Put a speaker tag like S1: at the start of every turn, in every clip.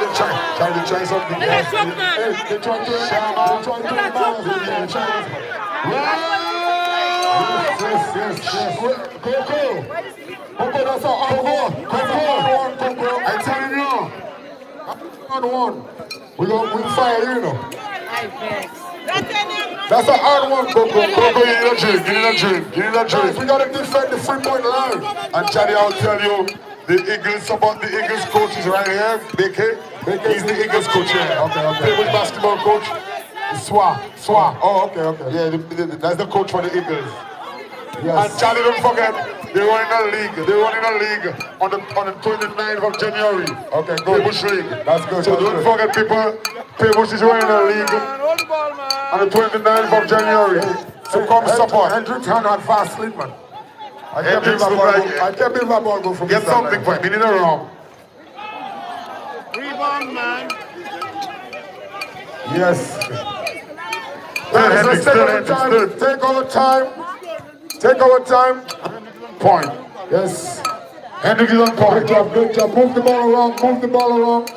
S1: Trying to try something.
S2: Let her choke, man.
S1: Hey, they trying to turn man. They trying to turn
S2: Let her choke,
S1: man.
S2: man.
S1: They trying to- Yes, yes, yes, yes. Coco. Coco, that's our Coco. Coco. Coco. I'm telling you. Hard one. We gonna win fire, you know. That's a hard one, Coco. Coco, you need a drink. You need a drink. You need a drink. We gotta defend the free point line. And Charlie, I'll tell you, the Eagles support the Eagles coach is right here. BK. BK. He's the Eagles coach here. Okay, okay. Table basketball coach. Swa. Swa. Oh, okay, okay. Yeah, the, the, the, that's the coach for the Eagles. And Charlie, don't forget, they were in a league. They were in a league on the on the 29th of January. Okay, good. Bush League. That's good. So don't forget, people. Peebush is wearing a league on the 29th of January. So come support.
S3: Hendrix had not fast sleep, man. I can't believe
S1: Hendrix
S3: that
S1: look
S3: ball,
S1: like-
S3: go, I can't believe that ball go from
S1: Get
S3: the sideline.
S1: something for him. He need a rum.
S4: Rebound, man.
S3: Yes.
S1: Third
S3: Let's
S1: Hendrix,
S3: take
S1: third
S3: our
S1: Hendrix,
S3: time.
S1: third.
S3: Take our time. Take our time.
S1: Point.
S3: Yes.
S1: Hendrix is on
S3: Good
S1: point.
S3: job, good job. Move the ball around, move the ball around.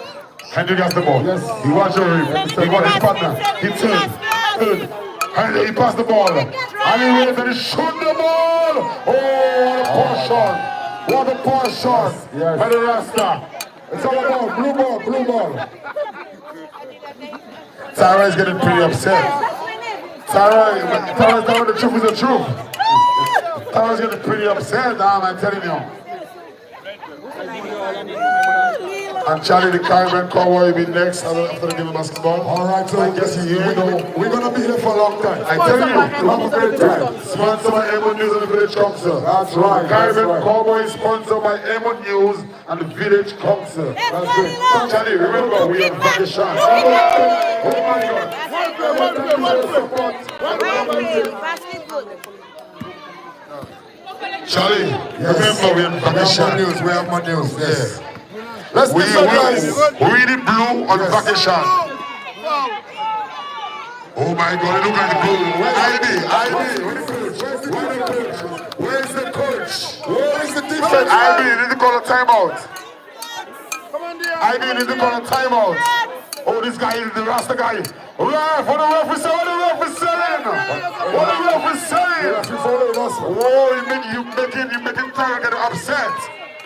S1: Hendrix has the ball.
S3: Yes.
S1: He wants your rim. He got his partner. He turned. Third. And he passed the ball. And he waved and he shot the ball. Oh, what a poor shot. What a poor shot.
S3: Yes.
S1: By the Rasta.
S3: It's all about blue ball, blue ball.
S1: Sarah is getting pretty upset. Sarah, Sarah's telling the truth is the truth. Sarah's getting pretty upset, um, I'm telling you. And Charlie, the Caribbean Cowboy, will be next after after the game of basketball.
S3: All right, so
S1: I guess you
S3: we,
S1: know.
S3: we're gonna be here for a long time.
S1: I tell you,
S3: have a great time.
S1: Sponsored by Emon News and the Village Council.
S3: That's right, that's
S1: Caribbean
S3: right.
S1: Cowboy is sponsored by Emon News and the Village Council.
S3: That's good.
S1: Charlie, remember, we are vacation.
S3: Oh
S1: Oh
S3: my God.
S4: One play, one play.
S1: Charlie,
S3: We
S1: remember, we are
S3: have more
S1: vacation.
S3: news, we have more news, yes. Let's
S1: We, we,
S3: listen, guys.
S1: we the blue on vacation. Oh my God, look at the blue. ID, ID.
S3: Where's the coach? Where's the coach? Where is the defense?
S1: ID, you need to call a timeout.
S4: Come on, dear.
S1: ID, you need to call a timeout. Oh, this guy is the Rasta guy. Ref, what the ref is saying? What the ref is saying? What the ref is
S3: The referee
S1: saying?
S3: following us.
S1: Oh, you make you making you making Tiger get upset.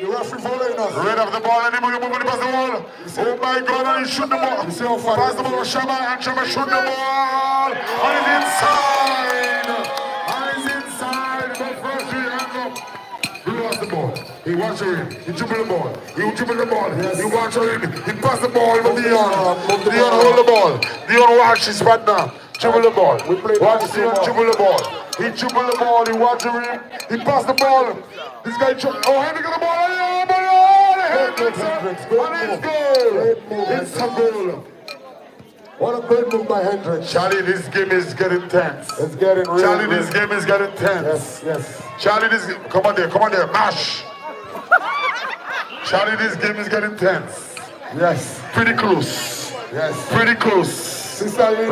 S3: The referee following us.
S1: Red of the ball, and he moving, moving past the wall. Oh my God, and he shoot the ball.
S3: You see how far-
S1: Pass the ball to Shaba, and Shaba shoot the ball. And it's inside. And it's inside. But first we hang up. He lost the ball. He watched him. He dribbled the ball. He dribbled the ball. He watched him. He passed the ball to Dion. Dion hold the ball. Dion watch his partner. Dribble the ball.
S3: We play
S1: Watch
S3: basketball.
S1: Dion dribble the ball. He dribbled the ball. He watched him. He passed the ball. This guy. Tri- oh, Henry got the ball. Oh, but oh, Hendricks. And it's goal. It's a goal.
S3: What a great move by Hendricks.
S1: Charlie, this game is getting tense.
S3: It's getting real.
S1: Charlie, this game is getting tense.
S3: Yes, yes.
S1: Charlie, this come on there, come on there, mash. Charlie, this game is getting tense.
S3: Yes,
S1: Pretty close.
S3: yes.
S1: Pretty close.
S3: Sister Lina is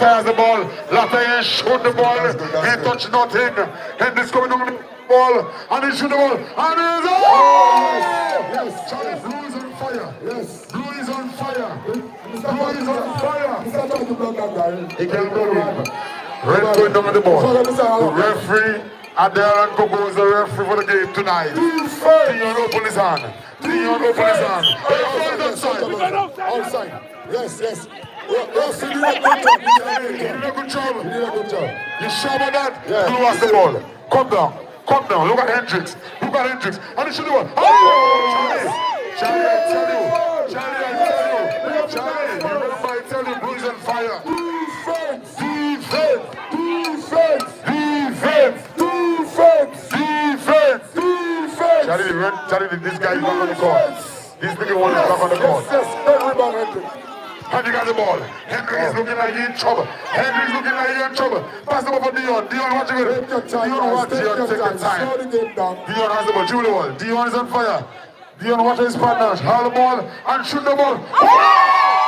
S3: up.
S1: has the ball. Lafayette shoot the ball.
S3: That's good, that's
S1: He
S3: good.
S1: touched nothing. And this coming on the ball. And he shoot the ball. And he's oh!
S3: Yes,
S1: Charlie, blue is on fire.
S3: yes.
S1: Blue is on fire.
S3: Mr. Tony is on fire. Mr. Tony to block that guy.
S1: He can blow him. Red going down on the ball. The referee, Adele and Coco is the referee for the game tonight. Dion open his hand. Dion open his hand. Hey, offside, offside.
S3: Outside. Yes, yes. Yes, you did a good job. You
S1: You
S3: did
S1: did a good job.
S3: a good job.
S1: You sure about that?
S3: Yeah.
S1: Blue has the ball. Come down. Come down. Look at Hendricks. Look at Hendricks. And he should do it. Oh, Charlie. Charlie, I tell you. Charlie, I tell you. Charlie, you remember I tell you, Blues on fire.
S3: Defense!
S1: Defense.
S3: Defense!
S1: Defense.
S3: Defense!
S1: Defense.
S3: Defense!
S1: Charlie, the red, Charlie, the- this guy is back on the court. This nigga won't back on the court.
S3: Yes, yes. Good rebound, Hendrick.
S1: Henry got the ball. Henry is looking like he in trouble. Henry is looking like he in trouble. Pass the ball for Dion. Dion watching it.
S3: Take your time,
S1: Dion watch.
S3: guys. Take
S1: Dion
S3: your
S1: take your
S3: time.
S1: time.
S3: Slow the game down.
S1: Dion has the ball. Dribble the ball. Dion is on fire. Dion watches his partner. Haul the ball and shoot the ball. Oh!